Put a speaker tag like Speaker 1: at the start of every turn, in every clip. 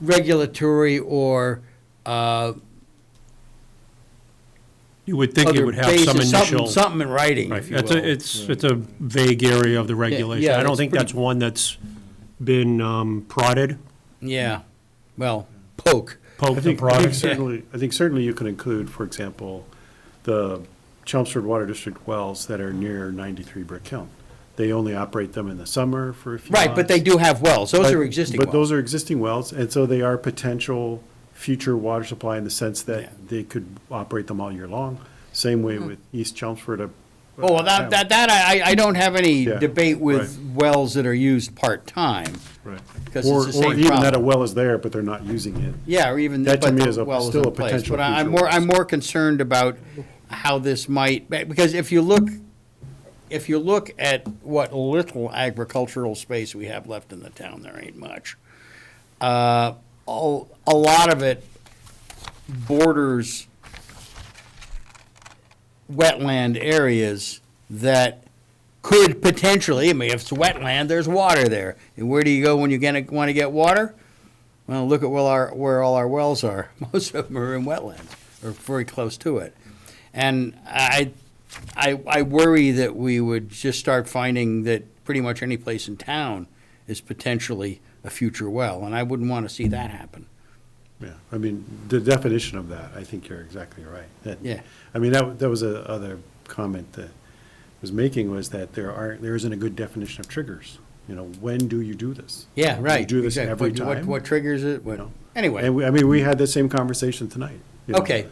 Speaker 1: regulatory or uh,
Speaker 2: You would think it
Speaker 1: other
Speaker 2: would have some
Speaker 1: basis, something,
Speaker 2: initial.
Speaker 1: something in writing,
Speaker 2: Right,
Speaker 1: if you
Speaker 2: that's
Speaker 1: will.
Speaker 2: a, it's, it's a vague area of the regulation.
Speaker 1: yeah,
Speaker 2: I don't
Speaker 1: it's
Speaker 2: think that's
Speaker 1: pretty-
Speaker 2: one that's been um, prodded.
Speaker 1: Yeah, well, poke.
Speaker 2: poked
Speaker 3: I
Speaker 2: and
Speaker 3: think, I
Speaker 2: prodded.
Speaker 3: think certainly, I think certainly you can include, for example, the Chelmsford Water District wells that are near 93 Brick Hill. They only operate them in the summer for a few
Speaker 1: Right, but they
Speaker 3: months.
Speaker 1: do have wells. Those
Speaker 3: But-
Speaker 1: are existing
Speaker 3: But
Speaker 1: wells.
Speaker 3: those are existing wells, and so they are potential future water supply in the sense
Speaker 1: Yeah. Mm-hmm.
Speaker 3: that they could operate them all year long. Same way with East Chelmsford. uh,
Speaker 1: Oh, well, that, that, that I, I- I don't have any
Speaker 3: Yeah,
Speaker 1: debate with wells that are used part-time.
Speaker 3: Right.
Speaker 1: because it's
Speaker 3: Or,
Speaker 1: the
Speaker 3: or
Speaker 1: same
Speaker 3: even that a
Speaker 1: problem.
Speaker 3: well is there, but they're not using it.
Speaker 1: Yeah, or even, but
Speaker 3: That to me is
Speaker 1: the
Speaker 3: a-
Speaker 1: well is
Speaker 3: still
Speaker 1: in
Speaker 3: a
Speaker 1: place.
Speaker 3: potential
Speaker 1: But I- I'm
Speaker 3: future
Speaker 1: more, I'm
Speaker 3: risk.
Speaker 1: more concerned about how this might, because if you look, if you look at what little agricultural space we have left in the town, there ain't much. Uh, all- A lot of it borders wetland areas that could potentially, I mean, if it's wetland, there's water there. And where do you go when you're gonna wanna get water? Well, look at where our, where all our wells are. Most of them are in wetlands or very close to it. And I, I, I worry that we would just start finding that pretty much any place in town is potentially a future well, and I wouldn't want to see that happen.
Speaker 3: Yeah, I mean, the definition of that, I think you're exactly right. That-
Speaker 1: Yeah.
Speaker 3: I mean, that, that was a other comment that I was making was that there are, there isn't a good definition of triggers. You know, when do you do this?
Speaker 1: Yeah,
Speaker 3: Do
Speaker 1: right.
Speaker 3: You do this
Speaker 1: exactly.
Speaker 3: every
Speaker 1: What-
Speaker 3: time?
Speaker 1: What, what triggers it, what,
Speaker 3: No. And
Speaker 1: anyway,
Speaker 3: we, I mean, we had the same conversation tonight. you know.
Speaker 1: okay,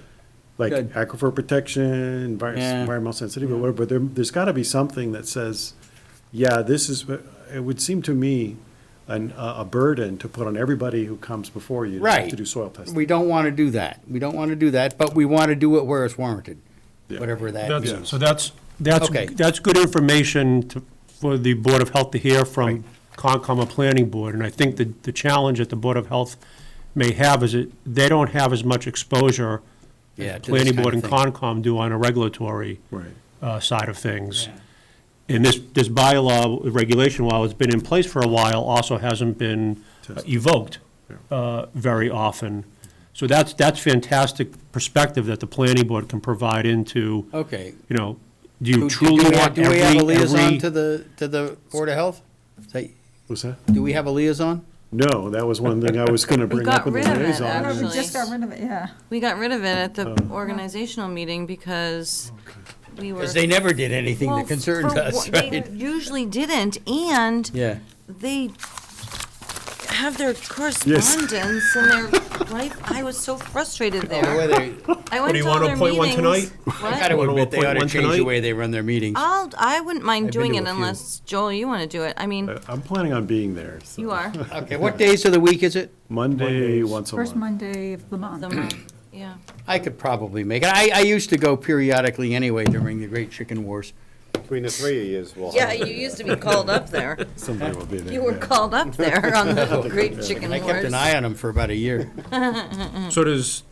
Speaker 3: Like
Speaker 1: good.
Speaker 3: aquifer protection, envir-
Speaker 1: Yeah.
Speaker 3: environmental sensitivity, whatever, but there, there's gotta be something that says, yeah, this is, what- it would seem to me an, a a burden to put on everybody who comes before you. to have
Speaker 1: Right.
Speaker 3: To do soil testing.
Speaker 1: we don't want to do that. We don't want to do that, but we want to do it where it's warranted,
Speaker 3: Yeah.
Speaker 1: whatever that
Speaker 2: That's-
Speaker 1: is.
Speaker 2: So that's, that's,
Speaker 1: Okay.
Speaker 2: that's good information to- for the Board of Health to hear from Concom or Planning Board. And I think the, the challenge that the Board of Health may have is that they don't have as much exposure
Speaker 1: Yeah, to
Speaker 2: as
Speaker 1: this
Speaker 2: Planning
Speaker 1: kind
Speaker 2: Board and
Speaker 1: of
Speaker 2: Concom do on a regulatory
Speaker 3: Right.
Speaker 2: uh, side of things. And this, this bylaw regulation, while it's been in place for a while, also hasn't been uh,
Speaker 3: Tested.
Speaker 2: evoked
Speaker 3: Yeah.
Speaker 2: uh, very often. So that's, that's fantastic perspective that the planning board can provide into, you
Speaker 1: Okay,
Speaker 2: know, do
Speaker 1: Do-
Speaker 2: you
Speaker 1: do
Speaker 2: truly
Speaker 1: we-
Speaker 2: want
Speaker 1: Do we have a
Speaker 2: every,
Speaker 1: liaison to
Speaker 2: every?
Speaker 1: the, to the Board of Health? Say,
Speaker 3: What's that?
Speaker 1: do we have a liaison?
Speaker 3: No, that was one thing I was gonna bring up
Speaker 4: got
Speaker 3: with the
Speaker 4: rid of it,
Speaker 3: liaison.
Speaker 4: actually.
Speaker 3: and-
Speaker 4: Remember,
Speaker 5: We
Speaker 4: Actually.
Speaker 5: just got rid of it, yeah.
Speaker 4: We got rid of it at the organizational meeting because we were.
Speaker 1: Because they never did anything
Speaker 4: Well,
Speaker 1: that concerns
Speaker 4: for
Speaker 1: us,
Speaker 4: what- they
Speaker 1: right?
Speaker 4: Usually didn't, and
Speaker 1: Yeah.
Speaker 4: they have their correspondence and their life. I was so frustrated there. I went
Speaker 2: do you
Speaker 4: to
Speaker 2: want
Speaker 4: all
Speaker 2: to
Speaker 4: their
Speaker 2: appoint one
Speaker 4: meetings.
Speaker 2: tonight?
Speaker 1: I
Speaker 4: What?
Speaker 1: gotta
Speaker 2: Wanna
Speaker 1: admit, they
Speaker 2: appoint
Speaker 1: ought to
Speaker 2: one
Speaker 1: change the
Speaker 2: tonight?
Speaker 1: way they run their meetings.
Speaker 4: I'll, I wouldn't mind
Speaker 1: I've been
Speaker 4: doing
Speaker 1: to
Speaker 4: it
Speaker 1: a few.
Speaker 4: unless, Joel, you want to do it. I mean,
Speaker 3: Uh, I'm planning on being there. so-
Speaker 4: you are.
Speaker 1: Okay, what days of the week is it?
Speaker 3: Monday, once a
Speaker 5: First
Speaker 3: month.
Speaker 5: Monday of the month.
Speaker 4: The month, Yeah.
Speaker 1: I could probably make it. I, I used to go periodically anyway during the Great Chicken Wars.
Speaker 6: Between the three of yous, we'll.
Speaker 4: Yeah, you used to be called up there.
Speaker 3: Somebody will be there.
Speaker 4: You were
Speaker 3: yeah.
Speaker 4: called up there on the Great Chicken
Speaker 1: I
Speaker 4: Wars.
Speaker 1: kept an eye on them for about a year.
Speaker 2: So does,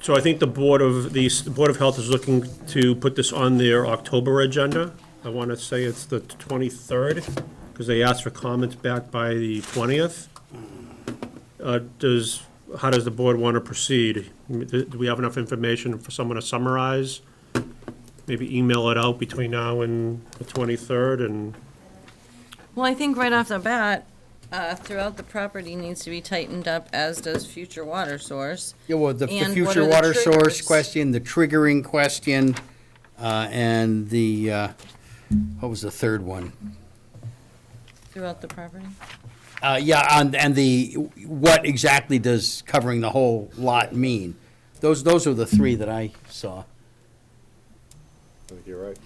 Speaker 2: so I think the Board of, the s- the Board of Health is looking to put this on their October agenda. I want to say it's the 23rd, because they asked for comments back by the 20th. Uh, Does, how does the board want to proceed? Do do we have enough information for someone to summarize? Maybe email it out between now and the 23rd, and
Speaker 4: Well, I think right off the bat, uh, throughout the property needs to be tightened up, as does future water source.
Speaker 1: Yeah, well, the, the
Speaker 4: And what
Speaker 1: future
Speaker 4: are the
Speaker 1: water source
Speaker 4: triggers?
Speaker 1: question, the triggering question, uh, and the, uh, what was the third one?
Speaker 4: Throughout the property?
Speaker 1: Uh, yeah, and, and the, what exactly does covering the whole lot mean? Those, those are the three that I saw.
Speaker 6: I think You're right.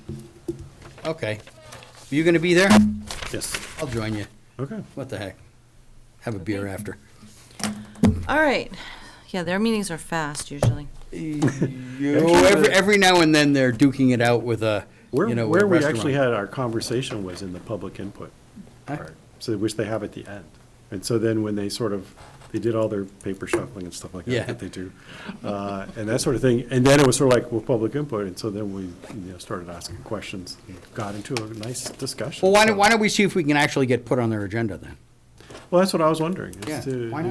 Speaker 1: Okay. You gonna be there?
Speaker 3: Yes,
Speaker 1: I'll join you.
Speaker 3: okay.
Speaker 1: What the heck? Have a beer after.
Speaker 4: All right. Yeah, their meetings are fast usually.
Speaker 1: Oh, every, every now and then they're duking it out with a,
Speaker 3: Where,
Speaker 1: you know, a
Speaker 3: where we actually
Speaker 1: restaurant.
Speaker 3: had our conversation was in the public input
Speaker 1: Huh?
Speaker 3: part, so which they have at the end. And so then when they sort of, they did all their paper shuffling and stuff like
Speaker 1: Yeah.
Speaker 3: that that they do. uh, And that sort of thing. And then it was sort of like, well, public input. And so then we, you know, started asking questions, and got into a nice discussion.
Speaker 1: Well, why don't,
Speaker 3: So-
Speaker 1: why don't we see if we can actually get put on their agenda then?
Speaker 3: Well, that's what I was wondering. is
Speaker 1: Yeah,
Speaker 3: to-
Speaker 1: why not?